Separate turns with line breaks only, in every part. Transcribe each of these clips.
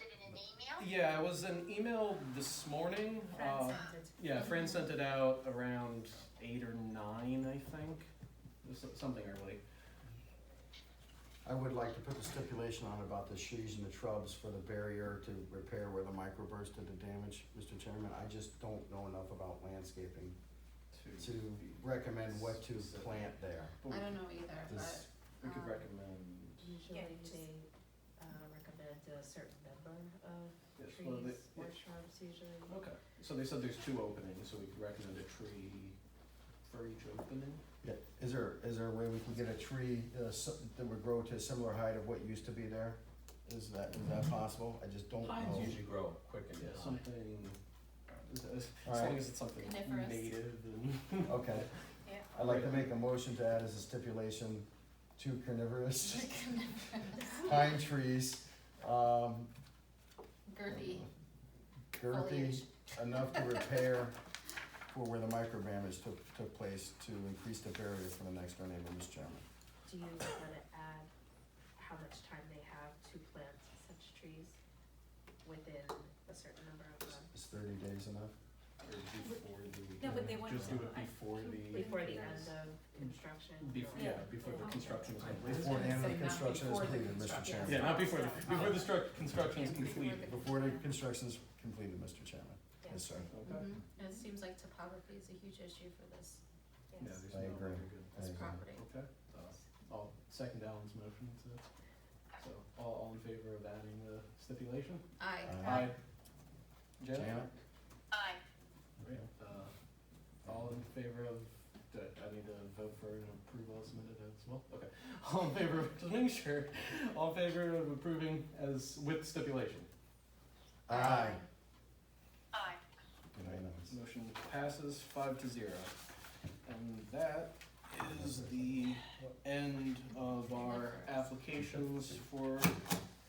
email?
Yeah, it was an email this morning.
Friends
Uh,
sent it.
yeah, Fran sent it out around eight or nine, I think. It was so- Something early.
I would like to put the stipulation on about the trees and the shrubs for the barrier to repair where the microburst did the damage, Mr. Chairman. I just don't know enough about landscaping to
be-
recommend what to plant there.
but we
I don't
could-
know either, but,
This-
We could
um,
recommend.
Yeah,
Usually
just-
they uh, recommend a certain number of
yes, well, they-
trees or shrubs usually.
Okay, so they said there's two openings, so we could recommend a tree for each opening?
Yeah, Is there, is there a way we can get a tree uh, s- that would grow to a similar height of what used to be there? Is that, is that possible? I just don't
Pines
know.
usually grow quicker than
Yeah,
not.
something, as as
Alright.
long as it's something
Coniferous.
native and.
Okay,
Yeah.
I'd like to make a motion to add as a stipulation to carnivorous pine trees, um,
girthy
girthy
Foliage.
enough to repair for where the micro damage took, took place to increase the barrier for the next door neighbor, Mr. Chairman.
Do you want to add how much time they have to plant such trees within a certain number of months?
Is thirty days enough?
Or before the.
No, but they want
Just do
to-
it before the,
Before the end of construction? Oh,
before, yeah, before the construction is completed.
Before the end of
Say
the
not
construction is
before the
completed, Mr.
construction.
Yeah,
Chairman.
not before, the before the struct, construction is
Yeah, before the-
completed.
Before the construction is completed, Mr. Chairman.
Yeah.
Yes, sir.
Okay.
Mhm. And it seems like topography is a huge issue for this,
Yeah,
Yes.
there's no
I agree.
other good.
I
this
agree.
property.
Okay, uh, I'll second Alan's motion to, so, all, all in favor of adding the stipulation?
Aye.
Aye.
Janet?
Janet?
Aye.
Great. Uh, all in favor of, do I- I need to vote for an approval as submitted as well? Okay. All in favor of, just making sure, all in favor of approving as, with stipulation?
Aye.
Aye.
Unanimous.
Motion passes five to zero. And that is the end of our applications for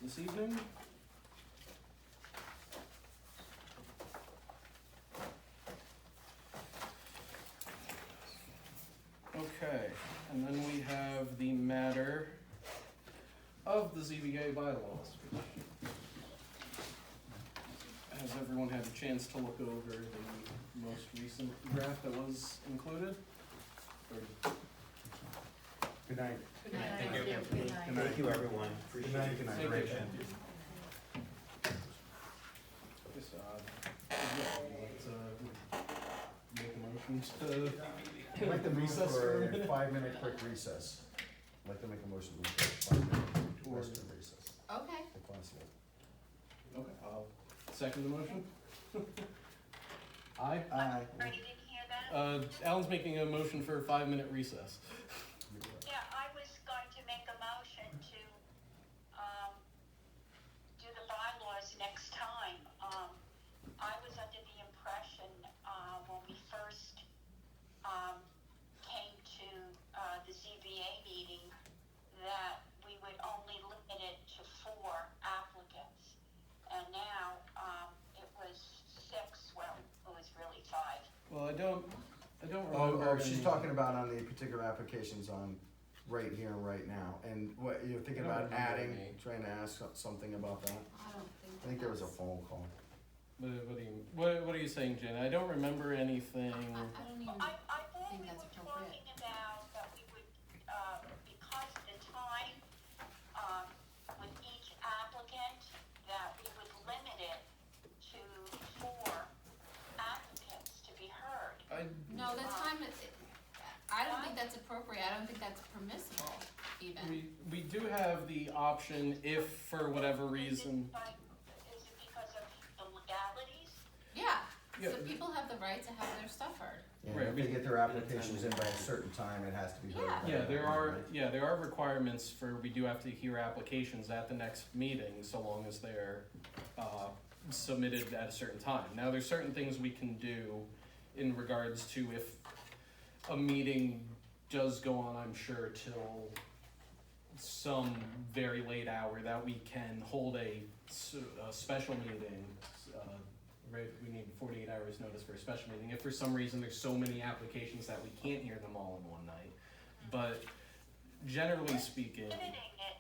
this evening. Okay, and then we have the matter of the ZBA bylaws. Has everyone had a chance to look over the most recent draft that was included? Or-
Good night.
Good
Yeah,
night.
thank you.
Good night.
night.
you, everyone.
Good night. Good night.
Thank you.
Rachel.
Yes, uh, yeah, let's, uh, make a motion to.
I'd like to move
Recess
for
for a
a five-minute quick recess. I'd like to make a motion to move for a five-minute
Or-
rest and recess,
Okay,
if possible.
Okay, I'll second the motion. Aye? Aye.
Sorry, you didn't hear that?
Uh, Alan's making a motion for a five-minute recess.
Yeah, I was going to make a motion to, um, do the bylaws next time. Um, I was under the impression, uh, when we first, um, came to, uh, the ZBA meeting, that we would only limit it to four applicants. And now, um, it was six, well, it was really five.
Well, I don't, I don't
Oh,
remember.
oh, she's
any-
talking about on the particular applications on right here, right now, and what, you're thinking about
Remember
adding,
me.
trying to ask something about that?
I don't think.
I think there was a
that's-
phone call.
What, what are you, what, what are you saying, Jen? I don't remember anything.
I, I don't even,
I, I thought
think
we
that's
were
appropriate.
talking about that we would, uh, because of the time, um, with each applicant, that we would limit it to four applicants to be heard.
I,
no, the time is, I don't think that's appropriate, I don't think that's permissible even.
we, we do have the option if for whatever
Is it
reason.
by- Is it because of the legalities?
Yeah,
Yeah.
so people have the right to have their stuff heard.
And
Right,
if
we-
they get their applications in by a certain time, it has to be heard.
Yeah.
by
Yeah, there
everyone,
are,
right?
yeah, there are requirements for, we do have to hear applications at the next meeting, so long as they're, uh, submitted at a certain time. Now, there's certain things we can do in regards to if a meeting does go on, I'm sure, till some very late hour, that we can hold a, s- a special meeting, uh, right, we need forty-eight hours notice for a special meeting, if for some reason there's so many applications that we can't hear them all in one night. But generally speaking,
Limiting it um,